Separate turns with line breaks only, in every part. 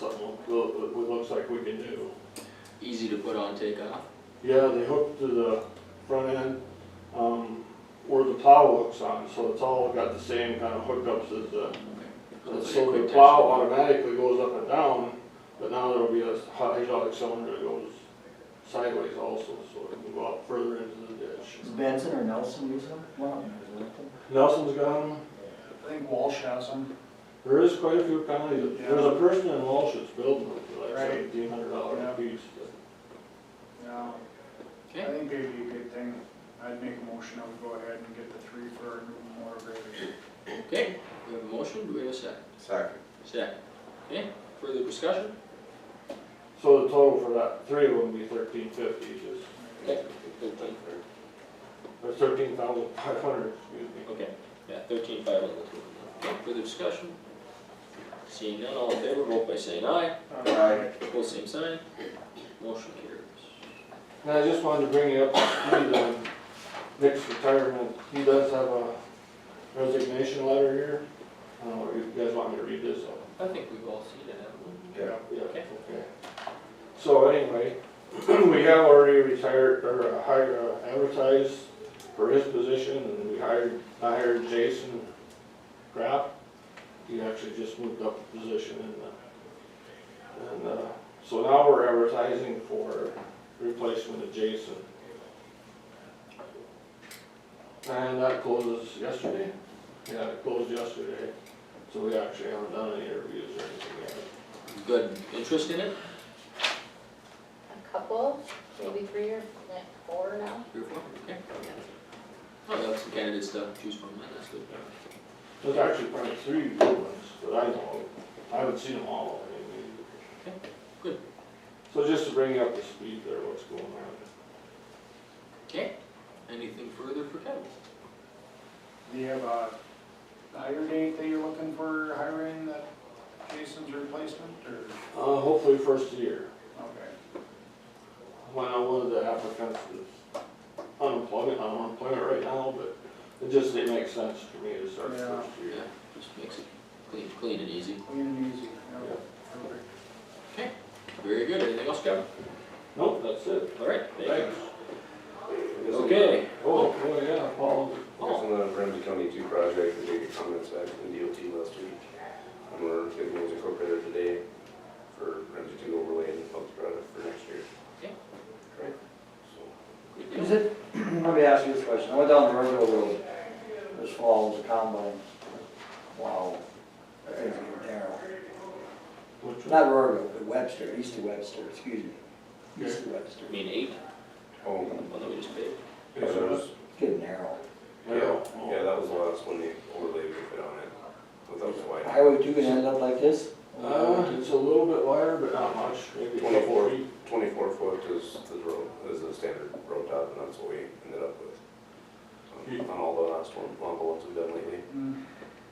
look, it looks like we can do.
Easy to put on, take off.
Yeah, they hook to the front end, um, where the plow hooks on, so it's all got the same kind of hookups as the,
Looks like a
so
quick
the
test.
plow automatically goes up and down, but now there'll be a hydraulic cylinder that goes sideways also, so it can go out further into the ditch.
Does Benson or Nelson use them? One of them, is it?
Nelson's got them,
I think Walsh has them.
there is quite a few counties, there's a person in Walsh that's building them for like
Right.
seventeen hundred dollars
Yeah.
a piece, but-
No, I
Okay,
think they'd be a good thing. I'd make a motion, I would go ahead and get the three for our new motor graders.
okay, we have a motion, do we have a second?
Second.
Second. Okay, further discussion?
So the total for that three would be thirteen fifty, just, or thirteen thousand five hundred, excuse me.
Okay, yeah, thirteen five on the two. of them. Okay, further discussion? Seeing none, all in favor, vote by saying aye.
Uh,
Aye.
Opposed, same sign. Motion carries.
And I just wanted to bring you up to speed on Nick's retirement, he does have a resignation letter here. Uh, you guys want me to read this out?
I think we've all seen it, haven't
Yeah.
Yeah,
Okay.
okay. So anyway, we have already retired, or uh, hired, uh, advertised for his position, and we hired, I hired Jason Grapp. He actually just moved up a position and, uh, and, uh, so now we're advertising for replacement of Jason. And that closes yesterday, yeah, it closed yesterday, so we actually haven't done any interviews or anything yet.
we? Good interest in it,
A couple, maybe three or like, four now.
three or four, okay? Well, that's some candidate stuff to choose from, then, that's good.
There's actually probably three good ones that I know of. I haven't seen them all. I mean,
Okay, good.
So just to bring you up to speed there, what's going on.
Okay, anything further for Kevin?
Do you have a hire date that you're looking for hiring that Jason's replacement, or,
Uh, hopefully first year,
okay.
when I wanted the applicants is unemployment, I'm unemployment right now, but it just didn't make sense for me to start
Yeah.
first year.
Yeah, just makes it clean, clean and easy.
Clean and easy,
Yeah.
yeah, perfect.
Very good, anything else, Kevin?
Nope, that's it.
All right, thank you.
Thanks.
Okay.
Oh, oh, yeah, Paul,
Oh.
There's another Ramsey County two project, we did get comments back from the DOT last week. And we're getting those incorporated today for Ramsey two overlay and public product for next year.
Okay.
Right? So,
Good
Is
deal.
it, let me ask you this question, I went down the Riverville Road this fall, it was a combine. Wow, that thing's getting narrow.
which one?
Not Riverville, but Webster, east of Webster, excuse me, east of Webster,
I mean, eight,
oh,
the one that we just paid.
yeah, that was,
it's getting narrow.
yeah,
Oh.
yeah, that was the last one they overlaid with it on it, without the white.
Highway two gonna end up like this?
Uh, it's a little bit wider, but not much, maybe
Twenty-four.
twenty-four feet.
Twenty-four foot is the road, is the standard road top, and that's what we ended up with.
Hmm.
On- On all the last one, on the ones we've done lately.
Mm,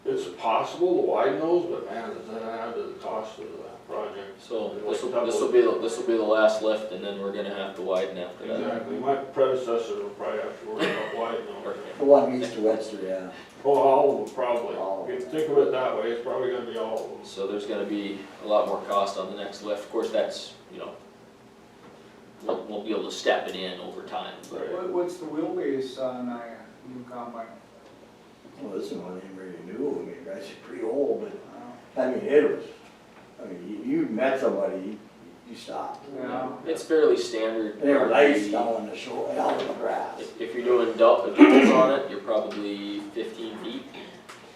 It's possible to widen those, but man, does that add to the cost of the project?
So this will, this will be, the- this will be the last left and then we're gonna have to widen after that.
Exactly, my predecessor will probably have to worry about widening over there.
The one east of Webster, yeah.
Oh, all of them, probably.
All of
If you think of it that way, it's probably gonna be all of them.
So there's gonna be a lot more cost on the next left. Of course, that's, you know, we'll, we'll be able to step it in over time, but
What, what's the wheelbase on uh, a new combine?
Well, this one ain't really new, I mean, that's pretty old,
Uh,
but, I mean, it was, I mean, you, you met somebody, you- you stopped.
Yeah,
it's fairly standard.
They were nice down on the shore, out in the grass.
If, if you're doing adult, adults on it, you're probably fifteen feet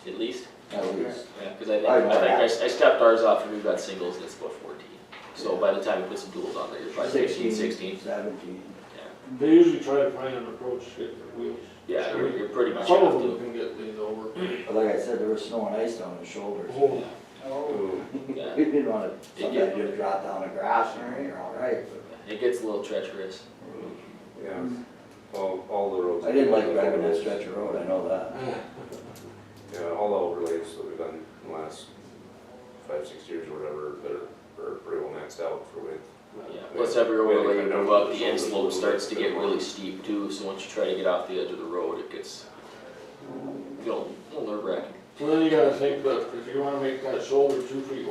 at least.
At least.
Yeah, cause I think,
I'd
I think I, s- I stepped ours off and we've got singles and it's about fourteen. So by the time you put some duals on there, you're probably fifteen, sixteen.
Seventeen.
They usually try to find an approach to get their wheels.
Yeah, you're, you're pretty much
Some
have
of them
to,
can get these over.
But like I said, there was snow and ice down his shoulders.
Oh,
oh,
Ooh.
yeah.
We didn't wanna, somebody just drop down the grass and you're all right.
It gets a little treacherous.
Yeah, all, all the roads.
I didn't like driving that stretch of road, I know that.
Yeah, all the overlays that we've done in the last five, six years or whatever, they're, are pretty well maxed out for width.
Yeah, plus every overlay you move up, the end slope starts to get really steep too, so once you try to get off the edge of the road, it gets, you know, a little nerve wracking.
So then you gotta think, but if you wanna make that shoulder two feet